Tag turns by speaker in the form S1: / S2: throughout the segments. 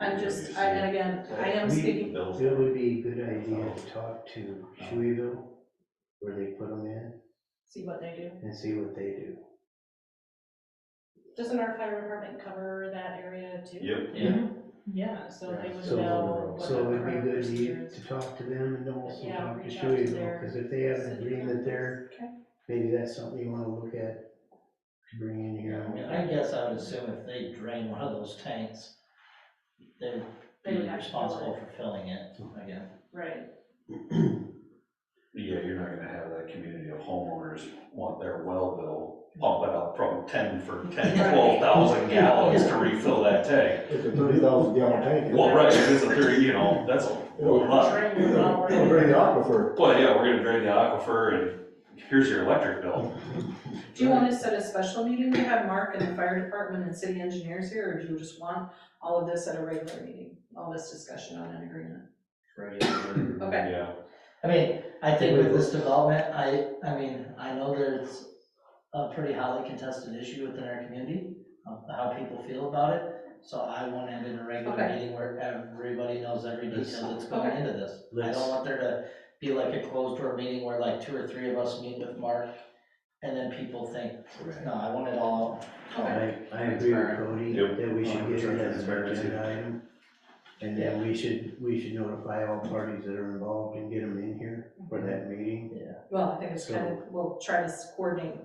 S1: I'm just, I, and again, I am speaking,
S2: It would be a good idea to talk to
S3: Oh.
S2: Shoeyville, where they put them in,
S1: see what they do.
S2: and see what they do.
S1: Doesn't our fire department cover that area too?
S4: Yep.
S3: Yeah.
S1: Yeah, so they would
S2: So-
S1: know what the
S2: So it'd be
S1: parameters
S2: good
S1: here
S2: to,
S1: is.
S2: to talk to them and also
S1: Yeah,
S2: talk to
S1: reach out to
S2: Shoeyville,
S1: their
S2: because if they have an
S1: City
S2: agreement there,
S1: councils. Okay.
S2: maybe that's something you wanna look at, to bring in
S3: I mean,
S2: here.
S3: I guess I would assume if they drain one of those tanks, they'd
S1: They
S3: be
S1: would have to fill
S3: responsible for filling it again.
S1: Right,
S4: Yeah, you're not gonna have that community of homeowners want their well bill pump it up from ten for ten, twelve thousand gallons to refill that tank.
S5: It's a thirty thousand gallon tank.
S4: Well, right, it's a three, you know, that's a lot,
S1: Drain was already-
S5: It'll drain the aquifer.
S4: but yeah, we're gonna drain the aquifer and here's your electric bill.
S1: Do you want to set a special meeting to have Mark and the fire department and city engineers here, or do you just want all of this at a regular meeting? All this discussion on an agreement? Okay,
S4: Yeah,
S3: I mean, I think with this development, I, I mean, I know that it's a pretty highly contested issue within our community, of how people feel about it. So I want to end in a regular
S1: Okay.
S3: meeting where everybody knows every detail
S1: Okay.
S3: that's going into this. I
S2: Let's-
S3: don't want there to be like a closed door meeting where like two or three of us meet with Mark, and then people think, no, I want it all.
S1: okay,
S2: I, I agree with Cody,
S4: Yep.
S2: that we should get it as an
S4: Transparency.
S2: agenda item, and then we should, we should notify all parties that are involved and get them in here for that meeting.
S1: well, I think it's kind of, we'll try to coordinate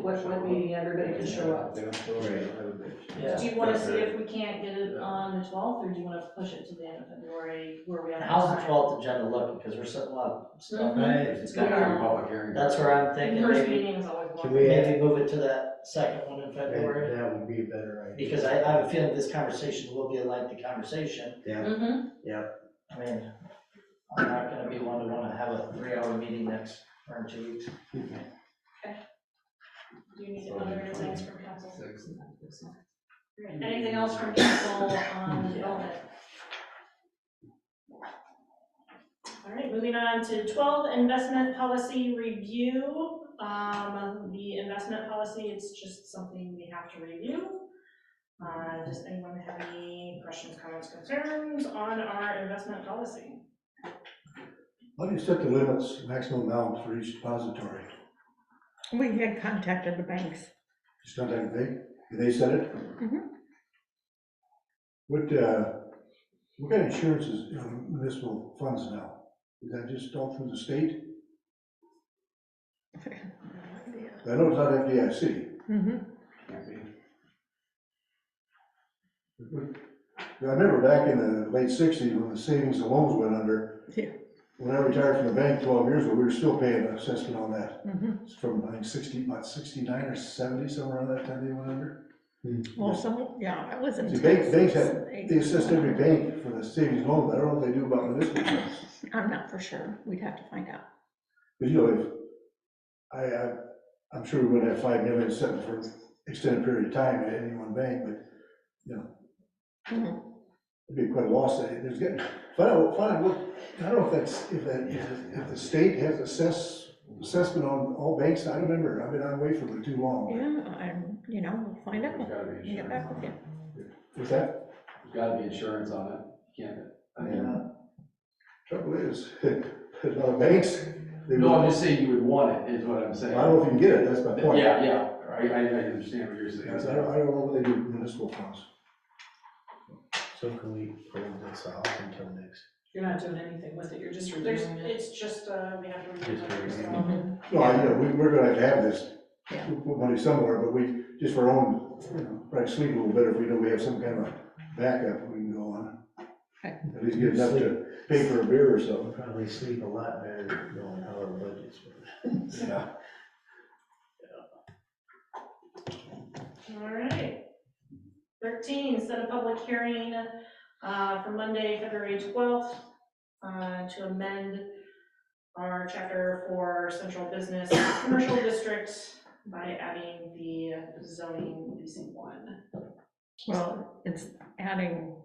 S1: what, what meeting everybody can show up.
S3: Yeah.
S6: Do you wanna see if we can't get it on the twelfth, or do you wanna push it to the end of February, where we have?
S3: How's the
S6: time?
S3: twelfth agenda looking? Because there's a lot of stuff.
S1: It's gonna be a
S6: public
S5: hearing.
S3: That's where I'm
S6: The
S3: thinking,
S6: Mm-hmm. first
S3: maybe,
S6: meeting is always
S2: Can
S6: one.
S2: we add,
S3: maybe move it to that second one in
S2: that,
S3: February.
S2: that would be a better idea.
S3: Because I, I have a feeling this conversation will be a lengthy conversation.
S2: Yeah,
S1: Mm-hmm,
S3: I mean, I'm not gonna be one to wanna have a three-hour meeting next, or in two weeks.
S6: Do you need other things from council? Anything else from council on development? All right, moving on to twelve, investment policy review. Um, the investment policy, it's just something we have to review. Uh, does anyone have any questions, comments, concerns on our investment policy?
S5: How do you set the limits, maximum amount for each depository?
S7: We had contacted the banks.
S5: It's not that big, and they set it?
S7: Mhm.
S5: What, uh, what kind of insurance is in municipal funds now? Is that just all through the state? I know it's not FDIC.
S7: Mhm.
S5: I remember back in the late sixties, when the savings and loans went under.
S7: Yeah.
S5: When I retired from the bank twelve years ago, we were still paying an assessment on that.
S7: Mhm.
S5: It's from, I think, sixty, about sixty-nine or seventy, somewhere around that time they went under.
S7: Well, some, yeah, I was in.
S5: The bank- banks have-
S7: Texas.
S5: They assessed every bank for the savings and loan, but I don't know what they do about municipal funds.
S7: I'm not for sure. We'd have to find out.
S5: But you know, if, I, I, I'm sure we wouldn't have five million sitting for an extended period of time at any one bank, but, you know.
S7: Mhm.
S5: It'd be quite a loss, that there's getting, find out, find out, what- I don't know if that's, if that, if if the state has assess, assessment on all banks, I don't remember, I've been on way from it too long.
S7: Yeah, I'm, you know, we'll find out. and Get back with you.
S5: What's that?
S8: There's gotta be insurance on it, you can't, I mean,
S5: Trouble is, a lot of banks, they,
S8: no, I'm
S5: don't-
S8: just saying you would want it, is what I'm
S5: I
S8: saying.
S5: don't know if you can get it, that's my point.
S8: Yeah, yeah, I, I I understand what you're saying.
S5: That's- I don't, I don't know what they do with municipal funds.
S2: so can we hold this off until next?
S1: you're not doing anything with it, you're just
S6: There's,
S1: reviewing it.
S6: it's just, uh, we have to review.
S2: Just
S6: it.
S2: review.
S7: Mhm.
S5: No, I, know, we, we're gonna have to have this,
S7: Yeah.
S5: we'll put money somewhere, but we, just for our own, you know, probably sleep a little better if we know we have some kind of a backup we can go on.
S7: Okay.
S5: At least get enough to pay for a beer or something.
S2: We'll probably sleep a lot better knowing how our budget's.
S5: Yeah.
S6: All right. Thirteen, set a public hearing uh, for Monday, February twelfth, uh, to amend our chapter for central business commercial districts by adding the zoning BC one.
S7: Well, it's adding,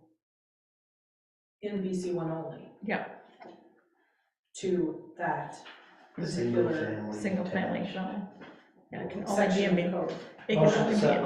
S1: In VC one only.
S7: Yeah.
S1: To that
S2: Single
S1: particular
S2: family.
S7: single family
S2: attached.
S7: dwelling. Yeah, it can only be
S1: section
S7: a,
S1: of
S7: min-
S1: code.
S7: it can
S5: Oh,
S3: Motion to
S7: only be
S3: set
S7: a